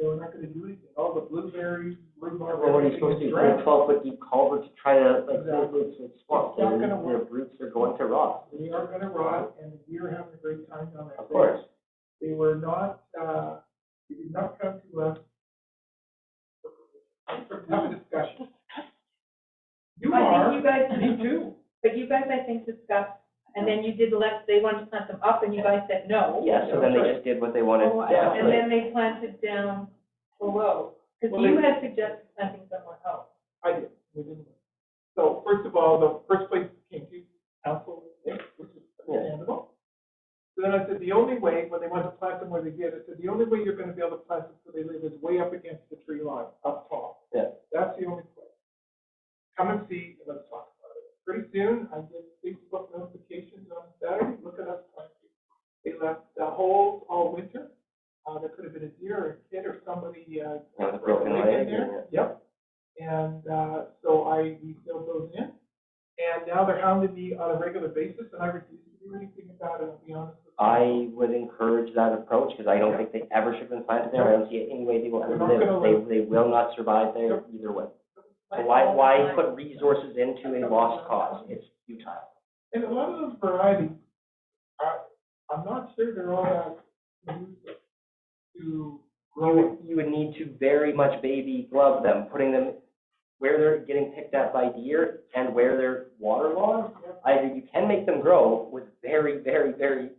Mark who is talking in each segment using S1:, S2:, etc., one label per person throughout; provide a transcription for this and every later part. S1: losing all the blueberries, rhubarb.
S2: Well, what are you supposed to do, put a twelve foot deep culvert to try to, like, save
S1: Exactly.
S2: roots and swamp,
S1: It's not
S2: and
S1: gonna
S2: the roots are going to rot.
S1: We are gonna rot, and we are having a great time down there.
S2: Of course.
S1: They were not, uh, they did not come to us for tough discussion. You
S3: I
S1: are.
S3: think you guys,
S1: Me too.
S3: but you guys, I think, discussed, and then you did let, they wanted to plant them up, and you guys said no.
S2: Yeah, so then they just did what they wanted
S3: Oh, I-
S2: down.
S3: And then they planted down below, because
S1: Well,
S3: you
S1: they-
S3: had suggested planting somewhere else.
S1: I did, we didn't. So first of all, the first place came to council, which is understandable. So then I said, the only way, when they went to plant them where they did, I said, the only way you're gonna be able to plant them so they live is way up against the tree line, up tall.
S2: Yeah.
S1: That's the only place. Come and see, and let's talk about it. Pretty soon, I get Facebook notifications on Saturday, look at us planting. They left the holes all winter. Uh, there could have been a deer or a kid or somebody, uh.
S2: Yeah, with a broken
S1: leg in
S2: leg,
S1: there. Yep. And, uh, so I, we filled those in. And now they're hounding me on a regular basis, and I refuse to do anything about it, I'll be honest with you.
S2: I would encourage that approach, because I don't think they ever should have been planted there, I don't see any way they will ever live, they, they will not survive there either way. So why, why put resources into a lost cause, it's futile.
S1: And a lot of those varieties, I, I'm not sure they're all that conducive to
S2: You
S1: growing.
S2: would, you would need to very much baby glove them, putting them where they're getting picked at by deer and where they're waterlogged. I think you can make them grow with very, very, very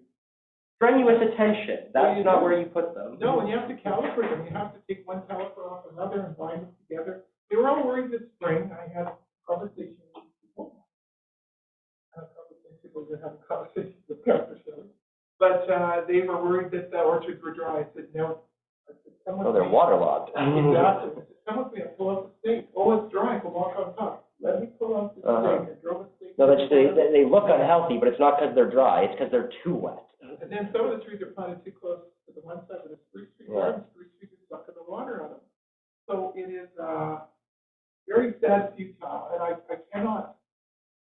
S2: strenuous attention.
S1: Yeah, you
S2: That's not
S1: do.
S2: where you put them.
S1: No, and you have to calibrate them, you have to take one caliper off another and bind them together. They were all worried this spring, I had conversations with people. I had conversations with people that have conversations with Pastor Shelley. But, uh, they were worried that the orchards were dry, I said, no. I said, "Come with me."
S2: waterlogged.
S1: Exactly. I said, Come with me, I pull up the stake, oh, it's dry, I can walk on top. Let me pull up the
S2: Uh-huh.
S1: stake, I drove a stake.
S2: No, that's, they, they- they look unhealthy, but it's not because they're dry, it's because they're too wet.
S1: And then some of the trees are planted too close to the one side of the spruce tree
S2: Yeah.
S1: garden, spruce trees are sucking the water out of them. So it is, uh, very sad futile, and I, I cannot,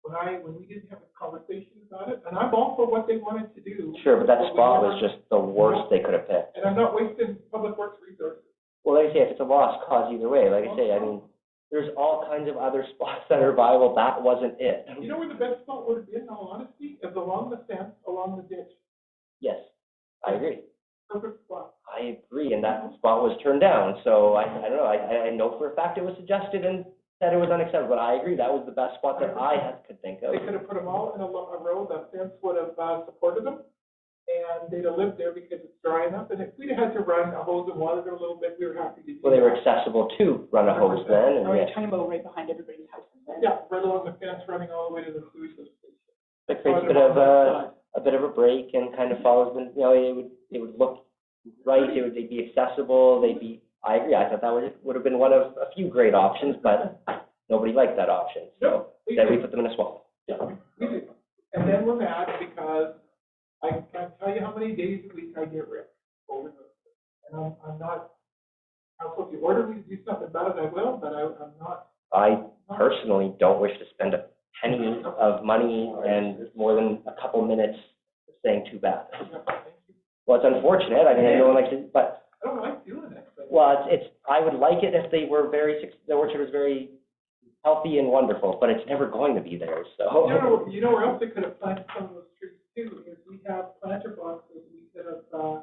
S1: when I, when we didn't have a conversation about it, and I'm all for what they wanted to do.
S2: Sure, but that
S1: we
S2: spot
S1: never-
S2: was just the worst they could have picked.
S1: And I'm not wasting public works resources.
S2: Well, like I say, if it's a lost cause either way, like I say, I mean, there's all kinds of other spots that are viable, that wasn't it.
S1: You know where the best spot would have been, in all honesty, is along the fence, along the ditch,
S2: Yes, I agree.
S1: perfect spot.
S2: I agree, and that spot was turned down, so I, I don't know, I, I- I know for a fact it was suggested and said it was unacceptable, but I agree, that was the best spot that I had- could think of.
S1: They could have put them all in a lo- a row, that fence would have uh, supported them, and they'd have lived there because it's dry enough, and if we'd had to run a hose and water it a little bit, we were happy to do that.
S2: Well, they were accessible to run a hose then, and
S4: Or
S2: yes,
S4: a turnbow right behind everybody's house.
S1: Yeah, right along the fence, running all the way to the sewage station.
S2: it creates a bit of a, a bit of a break and kind of follows them, you know, it would, it would look right, it would, they'd be accessible, they'd be, I agree, I thought that would, would have been one of a few great options, but nobody liked that option, so
S1: We
S2: then we
S1: did,
S2: put them in a swamp.
S1: we did. And then we're mad because I can't tell you how many days a week I get ripped over those. And I'm, I'm not, I'm supposed to order me to do something about it, I will, but I, I'm not.
S2: I personally don't wish to spend a penny of money and more than a couple minutes saying too bad.
S1: Yeah, thank you.
S2: Well, it's unfortunate, I mean, I don't like to, but,
S1: I don't like doing that, but.
S2: well, it's, it's, I would like it if they were very, suc- the orchard was very healthy and wonderful, but it's never going to be there,
S1: You know,
S2: so.
S1: you know where else they could have planted some of those trees too, is we have planter boxes, we could have, uh,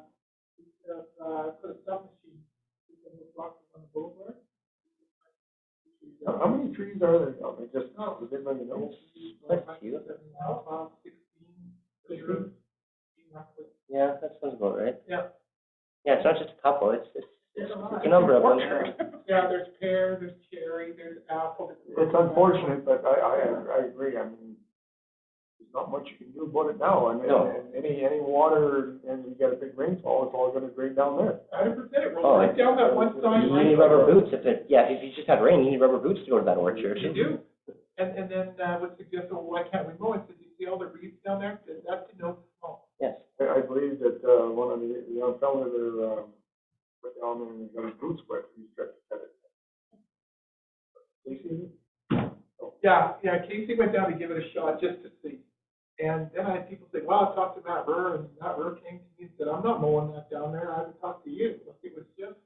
S1: we could have, uh, put a stump machine, we could have boxes on the boulevard.
S5: How, how many trees are there now? They just, does anybody know?
S2: That's cute.
S1: Now, um, sixteen, zero, roughly.
S2: Yeah, that sounds about right.
S1: Yeah.
S2: Yeah, it's not just a couple, it's, it's,
S1: There's
S2: it's
S1: a lot.
S2: it's a number of them.
S1: Yeah, there's pear, there's cherry, there's apple.
S5: It's unfortunate, but I, I, I agree, I mean, there's not much you can do about it now, and,
S2: No.
S5: and any, any water, and you get a big rainfall, it's all gonna drain down there.
S1: Hundred percent, it
S2: Oh,
S1: rolls right
S2: it's-
S1: down that one side.
S2: You
S1: right
S2: need
S1: away.
S2: rubber boots if it, yeah, if you just had rain, you need rubber boots to go to that orchard.
S1: You do. And, and then, uh, would suggest, well, why can't we mow? I said, you see all the reeds down there? That- That's oh, a no mow.
S2: Yes.
S5: I, I believe that, uh, one of the, the young fella there, um, went down there and got his boots wet, he tried to cut it. You see?
S1: Yeah, yeah, Casey went down to give it a shot just to see. And then I had people say, wow, I talked to Matt Burr, and Matt Burr came to me and said, I'm not mowing that down there, I haven't talked to you. Like, It was just